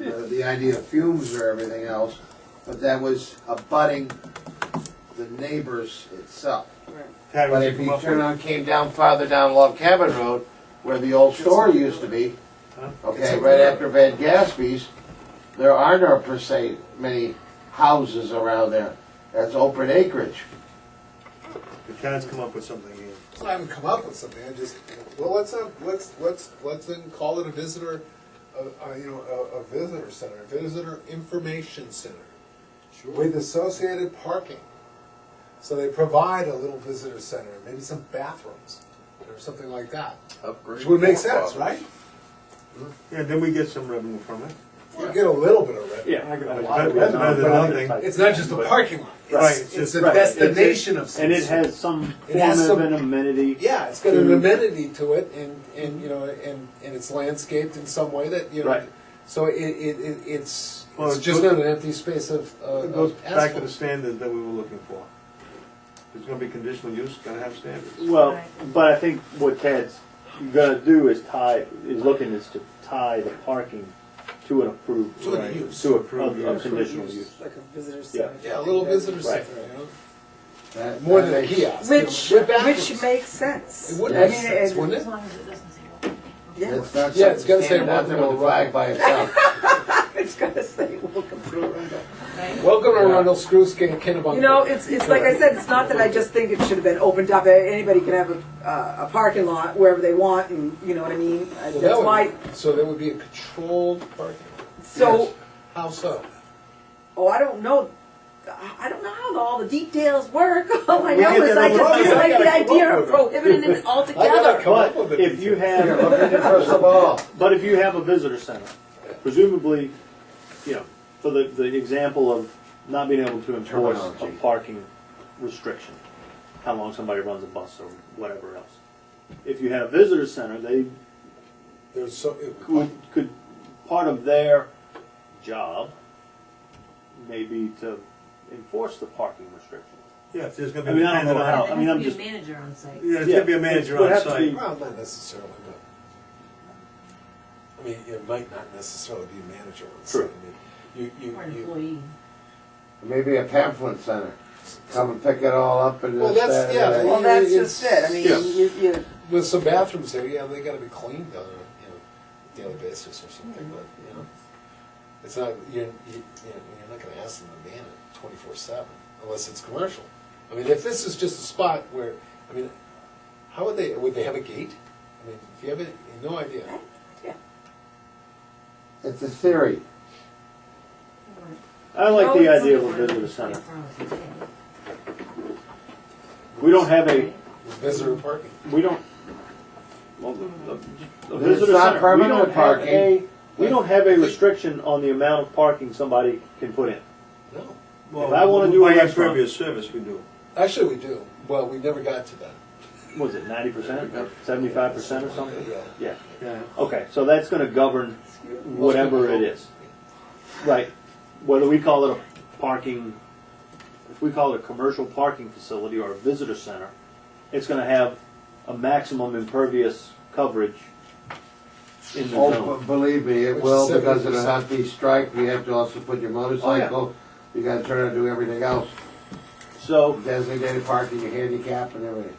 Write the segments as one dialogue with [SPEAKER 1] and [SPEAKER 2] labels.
[SPEAKER 1] the idea of fumes or everything else, but that was abutting the neighbors itself.
[SPEAKER 2] Patty,
[SPEAKER 1] But
[SPEAKER 2] would you
[SPEAKER 1] if
[SPEAKER 2] come
[SPEAKER 1] you
[SPEAKER 2] up
[SPEAKER 1] turn
[SPEAKER 2] with?
[SPEAKER 1] on, came down farther down Love Cabin Road, where the old store used to be,
[SPEAKER 2] Huh?
[SPEAKER 1] okay, right after Van Gaspy's, there are not per se many houses around there. That's open acreage.
[SPEAKER 2] The town's come up with something here.
[SPEAKER 3] So I haven't come up with something. I just well, let's have, let's let's let's then call it a visitor, a, a, you know, a, a visitor center, a visitor information center, with associated parking. So they provide a little visitor center, maybe some bathrooms or something like that, which would make sense, right?
[SPEAKER 2] Yeah, then we get some revenue from it.
[SPEAKER 3] You get a little bit of revenue.
[SPEAKER 4] Yeah.
[SPEAKER 2] It's better it's better than nothing.
[SPEAKER 3] It's not just a parking lot. It's,
[SPEAKER 2] Right,
[SPEAKER 3] It's,
[SPEAKER 2] just-
[SPEAKER 3] a
[SPEAKER 4] Right.
[SPEAKER 3] destination of some
[SPEAKER 4] And it
[SPEAKER 3] sort.
[SPEAKER 4] has some
[SPEAKER 3] It has
[SPEAKER 4] form of
[SPEAKER 3] some-
[SPEAKER 4] an amenity.
[SPEAKER 3] Yeah, it's got an
[SPEAKER 4] Mm.
[SPEAKER 3] amenity to it, and, and you know, and, and it's landscaped in some way that you know.
[SPEAKER 4] Right.
[SPEAKER 3] So it, it, it it's
[SPEAKER 2] Well,
[SPEAKER 3] it's
[SPEAKER 2] it
[SPEAKER 3] just
[SPEAKER 2] goes-
[SPEAKER 3] not an empty space of, uh,
[SPEAKER 2] It goes
[SPEAKER 3] of
[SPEAKER 2] back to the
[SPEAKER 3] asphalt.
[SPEAKER 2] standards that we were looking for. It's gonna be conditional use, gotta have standards.
[SPEAKER 4] Well, but I think what Ted's gonna do is tie, is looking is to tie the parking to an approved.
[SPEAKER 3] To a
[SPEAKER 2] Right.
[SPEAKER 3] use.
[SPEAKER 4] To a,
[SPEAKER 2] Approved
[SPEAKER 4] a- a
[SPEAKER 2] use.
[SPEAKER 4] conditional use.
[SPEAKER 5] Like a visitor
[SPEAKER 4] Yeah.
[SPEAKER 5] center.
[SPEAKER 3] Yeah, a little visitor
[SPEAKER 4] Right.
[SPEAKER 3] center, you know,
[SPEAKER 1] That-
[SPEAKER 3] more
[SPEAKER 1] that
[SPEAKER 3] than a
[SPEAKER 1] makes-
[SPEAKER 3] kiosk.
[SPEAKER 5] Which,
[SPEAKER 3] you know, with bathrooms.
[SPEAKER 5] which makes sense.
[SPEAKER 3] it would
[SPEAKER 5] I
[SPEAKER 3] make
[SPEAKER 5] mean,
[SPEAKER 3] sense,
[SPEAKER 5] it-
[SPEAKER 3] wouldn't
[SPEAKER 6] As
[SPEAKER 3] it?
[SPEAKER 6] long as it doesn't say.
[SPEAKER 5] Yeah,
[SPEAKER 1] It's not
[SPEAKER 3] Yeah, it's
[SPEAKER 1] something
[SPEAKER 3] gotta say
[SPEAKER 1] standing out there with a flag by itself.
[SPEAKER 5] it's gotta say welcome to Arundel.
[SPEAKER 3] Welcome to Arundel Screwskin Kennebunk.
[SPEAKER 5] You know, it's, it's like I said, it's not that I just think it should have been opened up, anybody can have a, uh, a parking lot wherever they want and, you know what I mean? Uh,
[SPEAKER 3] Well, that
[SPEAKER 5] That's
[SPEAKER 3] would-
[SPEAKER 5] why,
[SPEAKER 3] So there would be a controlled parking. lot.
[SPEAKER 5] so,
[SPEAKER 3] How so?
[SPEAKER 5] oh, I don't know, I I don't know how all the details work, all I
[SPEAKER 2] We
[SPEAKER 5] know
[SPEAKER 2] get
[SPEAKER 5] is
[SPEAKER 2] that
[SPEAKER 5] I
[SPEAKER 2] on the
[SPEAKER 5] just
[SPEAKER 2] road.
[SPEAKER 5] didn't like
[SPEAKER 3] I
[SPEAKER 5] the
[SPEAKER 3] gotta come
[SPEAKER 5] idea
[SPEAKER 3] up
[SPEAKER 5] of
[SPEAKER 3] with it.
[SPEAKER 5] prohibiting it
[SPEAKER 3] gotta
[SPEAKER 5] altogether.
[SPEAKER 3] come up with
[SPEAKER 4] But
[SPEAKER 3] it.
[SPEAKER 4] if you
[SPEAKER 1] Here,
[SPEAKER 4] have,
[SPEAKER 1] look at the crystal ball.
[SPEAKER 4] but if you have a visitor center, presumably, you know, for the, the example of not being able to enforce a
[SPEAKER 1] Terminology.
[SPEAKER 4] parking restriction, how long somebody runs a bus or whatever else. If you have visitor center, they
[SPEAKER 3] There's so.
[SPEAKER 4] could, could part of their job maybe to enforce the parking restriction.
[SPEAKER 2] Yeah, if there's
[SPEAKER 4] I
[SPEAKER 2] gonna be
[SPEAKER 4] mean,
[SPEAKER 2] a
[SPEAKER 4] I don't know
[SPEAKER 2] standard
[SPEAKER 4] how-
[SPEAKER 2] on,
[SPEAKER 4] I mean, I'm
[SPEAKER 6] There has
[SPEAKER 4] just-
[SPEAKER 6] to be a manager on site.
[SPEAKER 2] yeah, there's gonna be a
[SPEAKER 4] Yeah, it
[SPEAKER 2] manager
[SPEAKER 4] would
[SPEAKER 2] on
[SPEAKER 4] have to be-
[SPEAKER 2] site.
[SPEAKER 3] Well, not necessarily, but, I mean, it might not necessarily be a manager on site.
[SPEAKER 4] True.
[SPEAKER 3] I mean, You, you,
[SPEAKER 6] Or an
[SPEAKER 3] you.
[SPEAKER 6] employee.
[SPEAKER 1] Maybe a pamphlet center. Come and pick it all up and uh,
[SPEAKER 3] Well,
[SPEAKER 1] this,
[SPEAKER 3] that's-
[SPEAKER 1] that,
[SPEAKER 3] yeah,
[SPEAKER 1] and that.
[SPEAKER 5] Well, that's just it, I mean,
[SPEAKER 4] Yeah.
[SPEAKER 5] you, you,
[SPEAKER 3] With some bathrooms there, yeah, they gotta be cleaned on a, you know, daily basis or something, but, you know. It's not, you're, you, you know, you're not gonna ask them to man it twenty-four seven unless it's commercial. I mean, if this is just a spot where, I mean, how would they, would they have a gate? I mean, if you have it, no idea.
[SPEAKER 5] yeah.
[SPEAKER 1] It's a theory.
[SPEAKER 4] I
[SPEAKER 5] Oh,
[SPEAKER 4] like the idea of a visitor center. We don't have a,
[SPEAKER 3] Visitor parking.
[SPEAKER 4] we don't, well, a- a
[SPEAKER 1] It's
[SPEAKER 4] visitor
[SPEAKER 1] not
[SPEAKER 4] center, we
[SPEAKER 1] permanent
[SPEAKER 4] don't have
[SPEAKER 1] parking.
[SPEAKER 4] a, we don't have a restriction on the amount of parking somebody can put in.
[SPEAKER 3] No.
[SPEAKER 2] Well,
[SPEAKER 4] I wanna do a
[SPEAKER 2] by
[SPEAKER 4] restaurant-
[SPEAKER 2] Previous service we do.
[SPEAKER 3] Actually, we do. Well, we never got to that.
[SPEAKER 4] What Was it ninety percent, seventy-five percent or something?
[SPEAKER 3] Yeah.
[SPEAKER 4] Yeah,
[SPEAKER 2] Yeah.
[SPEAKER 4] okay, so that's gonna govern whatever it is. Right, whether we call it a parking, if we call it a commercial parking facility or a visitor center, it's gonna have a maximum impervious coverage in the
[SPEAKER 1] Oh,
[SPEAKER 4] zone.
[SPEAKER 1] but believe me,
[SPEAKER 3] Which
[SPEAKER 1] it
[SPEAKER 3] is
[SPEAKER 1] will, because it'll
[SPEAKER 3] 70%.
[SPEAKER 1] have to be striped, you have to also put your motorcycle, you gotta turn and do everything else,
[SPEAKER 4] So,
[SPEAKER 1] designated parking, your handicap and everything.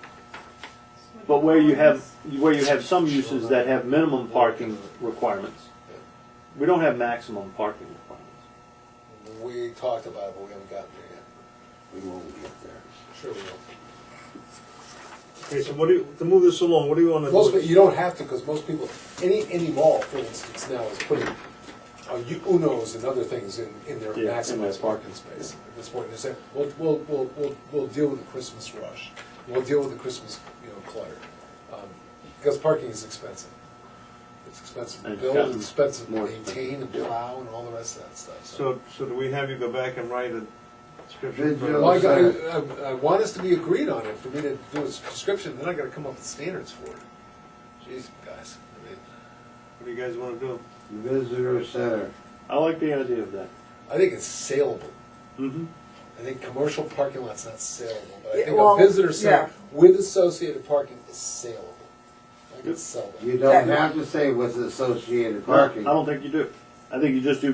[SPEAKER 4] but where you have, where you have some uses that have minimum parking requirements, we don't have maximum parking requirements.
[SPEAKER 3] We talked about it, but we haven't gotten there yet.
[SPEAKER 1] We won't get there.
[SPEAKER 3] Sure we
[SPEAKER 2] Okay, so what do you, to move this along, what do you wanna
[SPEAKER 3] will. Most,
[SPEAKER 2] do?
[SPEAKER 3] pe- you don't have to, because most people, any, any mall, for instance, now is putting uh, U- Unos and other things in, in their
[SPEAKER 4] Yeah, in their
[SPEAKER 3] maximized parking space. At this point, they say, we'll, we'll, we'll, we'll, we'll deal with the Christmas rush. We'll deal with the Christmas, you know, clutter. Um, Because parking is expensive. It's expensive to
[SPEAKER 4] And it's
[SPEAKER 3] build,
[SPEAKER 4] gotten
[SPEAKER 3] it's expensive to
[SPEAKER 4] more
[SPEAKER 3] maintain and plow and all the rest of that stuff.
[SPEAKER 2] So, so do we have you go back and write a description?
[SPEAKER 1] Did
[SPEAKER 2] for
[SPEAKER 1] you-
[SPEAKER 3] Well, I,
[SPEAKER 2] it?
[SPEAKER 3] got, I, I- I want us to be agreed on it for me to do a description, then I gotta come up with standards for it. Jeez, guys, I mean,
[SPEAKER 2] What do you guys wanna do?
[SPEAKER 1] Visitor center.
[SPEAKER 4] I like the idea of that.
[SPEAKER 3] I think it's saleable.
[SPEAKER 4] Mm-hmm.
[SPEAKER 3] I think commercial parking lot's not saleable, but I
[SPEAKER 5] Yeah,
[SPEAKER 3] think a
[SPEAKER 5] well,
[SPEAKER 3] visitor
[SPEAKER 5] yeah.
[SPEAKER 3] center with associated parking is saleable. I can sell that.
[SPEAKER 1] You don't have to say with associated parking.
[SPEAKER 4] I don't think you do. I think you just do